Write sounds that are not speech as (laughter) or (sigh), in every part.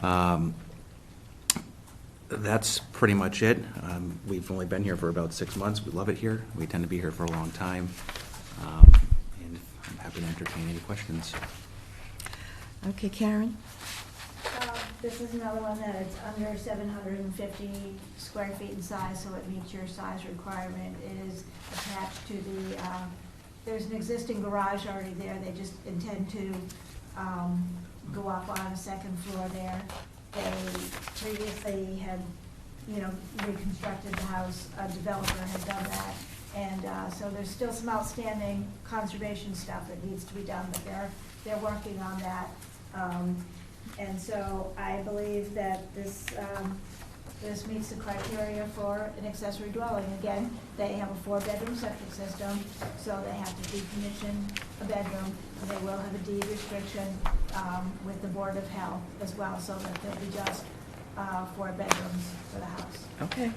Um, That's pretty much it. Um, We've only been here for about six months. We love it here. We tend to be here for a long time. Um, And I'm happy to entertain any questions. Okay, Karen? Um, This is another one that it's under seven hundred and fifty square feet in size, so it meets your size requirement. It is attached to the, um, there's an existing garage already there, they just intend to um, go up on a second floor there. They previously had, you know, reconstructed the house, a developer had done that. And uh, so there's still some outstanding conservation stuff that needs to be done, but they're, they're working on that. Um, and so I believe that this, um, this meets the criteria for an accessory dwelling. Again, they have a four-bedroom septic system, so they have to decommission a bedroom. and They will have a deed restriction, um, with the Board of Health as well, so that there'll be just, uh, four bedrooms for the house. Okay.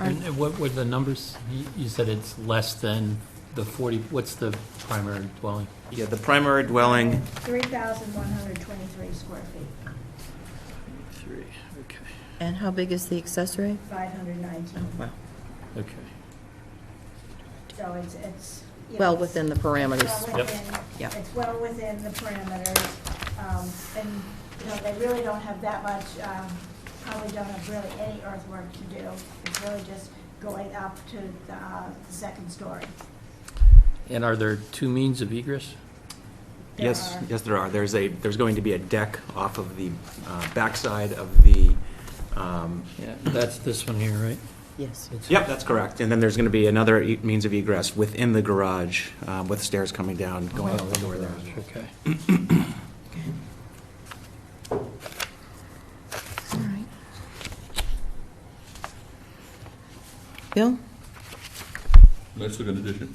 All right, And what were the numbers? You- You said it's less than the 40, what's the primary dwelling? Yeah, the primary dwelling. Three thousand one hundred twenty-three square feet, Three, okay. And how big is the accessory? five hundred nineteen. Well, Okay. So it's, it's. you know, Well within the Well parameters. Yep. within- Yep. It's well within the parameters, um, and, you know, they really don't have that much, um, probably don't have really any earthwork to do. It's really just going up to the, uh, the second story. And are there two means of egress? There Yes, are- yes, there are. There's a, there's going to be a deck off of the uh, backside of the, um, Yeah, that's this one here, right? Yes. It's- Yep, that's correct. And then there's going to be another e- means of egress within the garage um, with stairs coming down, going out the door there. Okay. All right. Bill? Nice looking addition.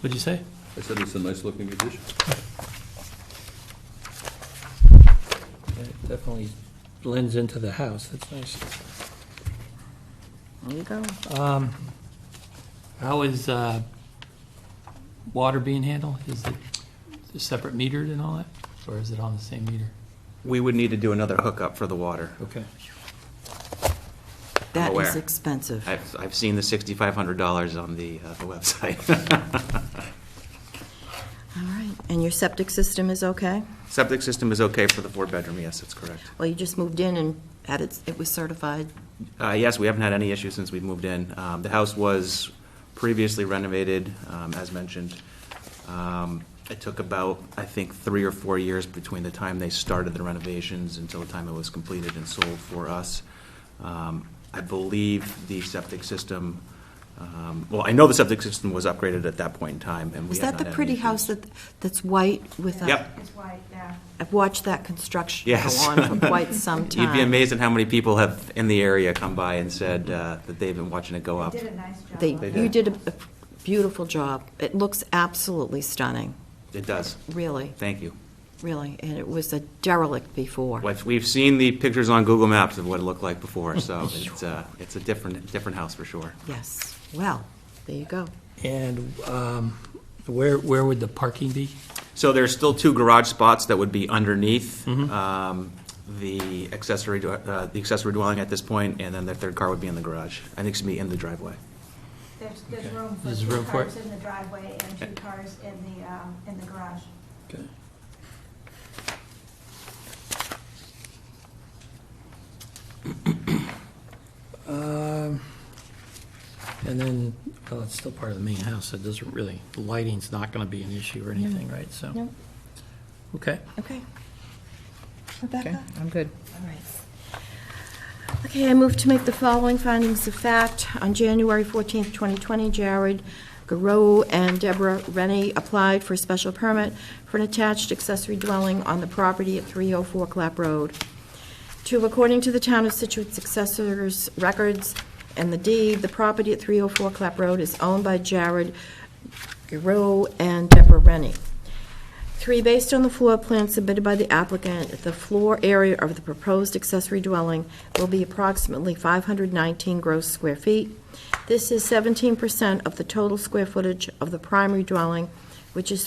What'd you say? I said it's a nice looking addition. Yeah, it Definitely blends into the house, that's nice. There you go. Um, How is uh, water being handled? Is it separate metered and all that? Or is it on the same meter? We would need to do another hookup for the water. Okay. That is aware. expensive. I've, I've seen the $6,500 on the uh, the (laughs) website. All right, and your septic system is okay? Septic system is okay for the four-bedroom, yes, that's correct. Well, you just moved in and had it, it was certified. Uh, Yes, we haven't had any issues since we moved in. Um, The house was previously renovated, um, as mentioned. Um, It took about, I think, three or four years between the time they started the renovations until the time it was completed and sold for us. Um, I believe the septic system, um, well, I know the septic system was upgraded at that point in time, and we Is have that not the had any pretty issues. house that, that's white with uh, a? Yep. It's white, yeah. I've watched that construction go Yes. on (laughs) for quite some time. You'd be amazed at how many people have, in the area, come by and said uh, that they've been watching it go up. They did a nice job. They, on They it. you did. did a a beautiful job. It looks absolutely stunning, It does. really, Thank you. really. And it was a derelict before. We've- We've seen the pictures on Google Maps of what it looked like before, (laughs) so it's, uh, it's a different, different house for sure. Yes, well, there you go. And um, where, where would the parking be? So there's still two garage spots that would be underneath Mm-hmm. um, the accessory, dwe- uh, the accessory dwelling at this point, and then the third car would be in the garage. I think it should be in the driveway. There's, there's Okay. room for There's two room for it? cars in the driveway and two cars in the, um, in the garage. Okay. Um, And then, well, it's still part of the main house, so it doesn't really, the lighting's not gonna be an issue or anything, right? So, No, okay. okay. Rebecca? I'm good. All right. Okay, I move to make the following findings of fact. On January 14th, 2020, Jared Garou and Deborah Rennie applied for a special permit for an attached accessory dwelling on the property at 304 Clap Road. Two, according to the town of Situate successors records and the deed, the property at 304 Clap Road is owned by Jared Garou and Deborah Rennie. Three, based on the floor plan submitted by the applicant, the floor area of the proposed accessory dwelling will be approximately 519 gross square feet. This is 17% of the total square footage of the primary dwelling, which is